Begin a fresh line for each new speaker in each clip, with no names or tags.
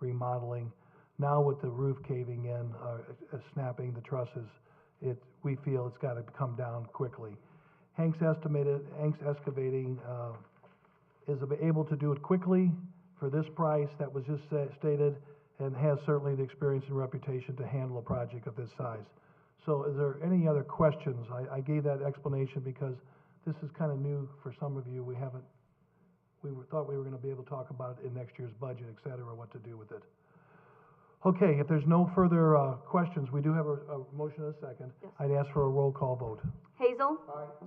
remodeling. Now with the roof caving in, uh, uh, snapping the trusses, it, we feel it's gotta come down quickly. Hank's estimated, Hank's excavating, uh, is ab- able to do it quickly for this price that was just sa- stated, and has certainly the experience and reputation to handle a project of this size. So is there any other questions? I, I gave that explanation because this is kind of new for some of you. We haven't, we were, thought we were gonna be able to talk about it in next year's budget, et cetera, what to do with it. Okay, if there's no further, uh, questions, we do have a, a motion and a second.
Yes.
I'd ask for a roll call vote.
Hazel.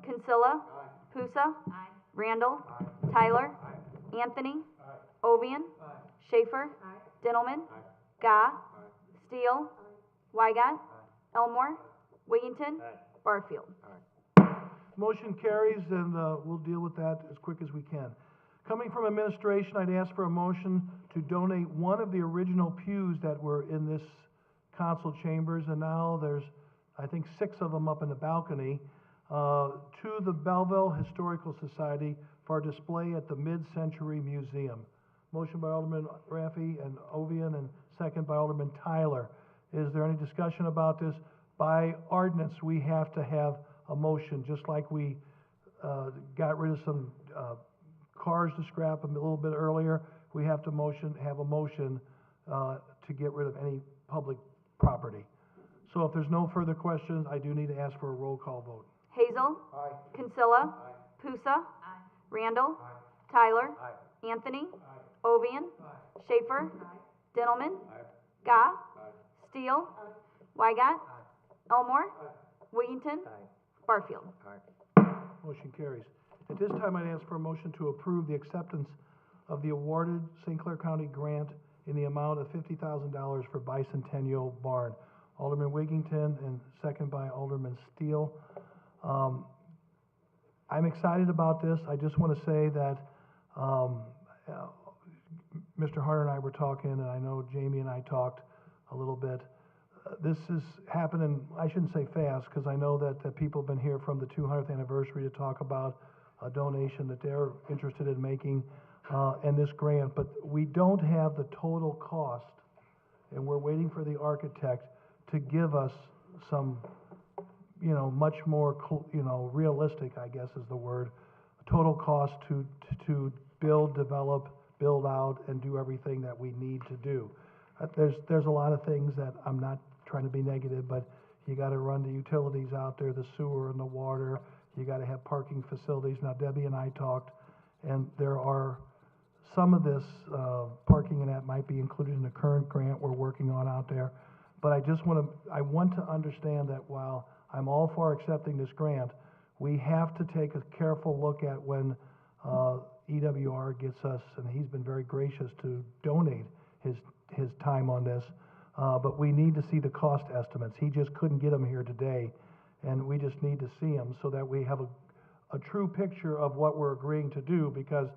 Consilla. Pusa. Randall. Tyler. Anthony. Ovian. Schaefer. Dintelman. Gah. Steele. Weigott. Elmore. Wiggington. Barfield.
Motion carries, and uh, we'll deal with that as quick as we can. Coming from administration, I'd ask for a motion to donate one of the original pews that were in this council chambers, and now there's, I think, six of them up in the balcony, uh, to the Belleville Historical Society for display at the Mid-Century Museum. Motion by Alderman Rafi and Ovian, and second by Alderman Tyler. Is there any discussion about this? By ordinance, we have to have a motion, just like we, uh, got rid of some, uh, cars to scrap a little bit earlier. We have to motion, have a motion, uh, to get rid of any public property. So if there's no further questions, I do need to ask for a roll call vote.
Hazel. Consilla. Pusa. Randall. Tyler. Anthony. Ovian. Schaefer. Dintelman. Gah. Steele. Weigott. Elmore. Wiggington. Barfield.
Motion carries. At this time, I'd ask for a motion to approve the acceptance of the awarded St. Clair County grant in the amount of fifty thousand dollars for bicentennial barn. Alderman Wiggington and second by Alderman Steele. Um, I'm excited about this. I just want to say that, um, uh, Mr. Harder and I were talking, and I know Jamie and I talked a little bit. Uh, This is happening, I shouldn't say fast, because I know that, that people have been here from the two hundredth anniversary to talk about a donation that they're interested in making, uh, and this grant, but we don't have the total cost, and we're waiting for the architect to give us some, you know, much more, cl- you know, realistic, I guess is the word, total cost to, to build, develop, build out, and do everything that we need to do. Uh, There's, there's a lot of things that, I'm not trying to be negative, but you gotta run the utilities out there, the sewer and the water, you gotta have parking facilities. Now Debbie and I talked, and there are, some of this, uh, parking and that might be included in the current grant we're working on out there. But I just wanna, I want to understand that while I'm all for accepting this grant, we have to take a careful look at when, uh, EWR gets us, and he's been very gracious to donate his, his time on this. Uh, but we need to see the cost estimates. He just couldn't get them here today, and we just need to see them so that we have a, a true picture of what we're agreeing to do, because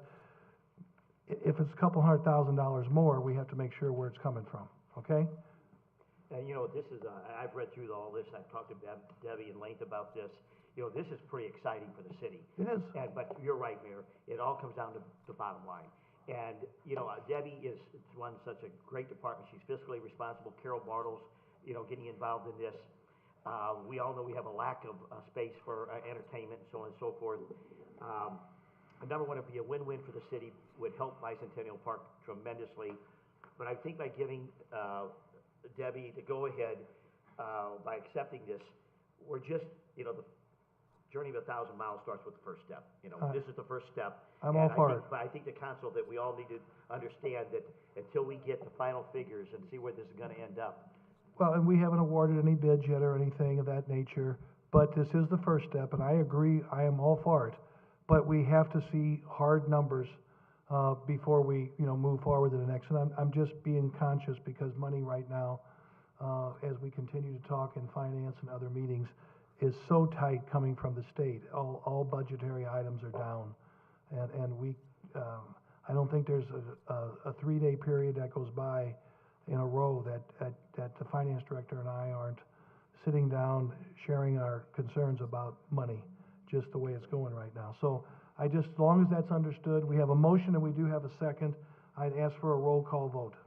i- if it's a couple hundred thousand dollars more, we have to make sure where it's coming from, okay?
And you know, this is, uh, I- I've read through all this, I've talked to Deb- Debbie in length about this. You know, this is pretty exciting for the city.
It is.
And, but you're right, Mayor, it all comes down to the bottom line. And, you know, uh, Debbie is, is one, such a great department, she's fiscally responsible, Carol Bartles, you know, getting involved in this. Uh, we all know we have a lack of, uh, space for uh, entertainment and so on and so forth. Um, and number one, it'd be a win-win for the city, would help Bicentennial Park tremendously. But I think by giving, uh, Debbie the go-ahead, uh, by accepting this, we're just, you know, the journey of a thousand miles starts with the first step. You know,
Uh,
this is the first step.
I'm
and
all
I
for
think-
it.
But I think the council, that we all need to understand that until we get the final figures and see where this is gonna end up,
Well, and we haven't awarded any bids yet or anything of that nature, but this is the first step, and I agree, I am all for it. But we have to see hard numbers, uh, before we, you know, move forward to the next. And I'm, I'm just being conscious because money right now, uh, as we continue to talk in finance and other meetings, is so tight coming from the state. All, all budgetary items are down. And, and we, um, I don't think there's a, a, a three-day period that goes by in a row that, that, that the finance director and I aren't sitting down, sharing our concerns about money, just the way it's going right now. So I just, as long as that's understood, we have a motion and we do have a second, I'd ask for a roll call vote.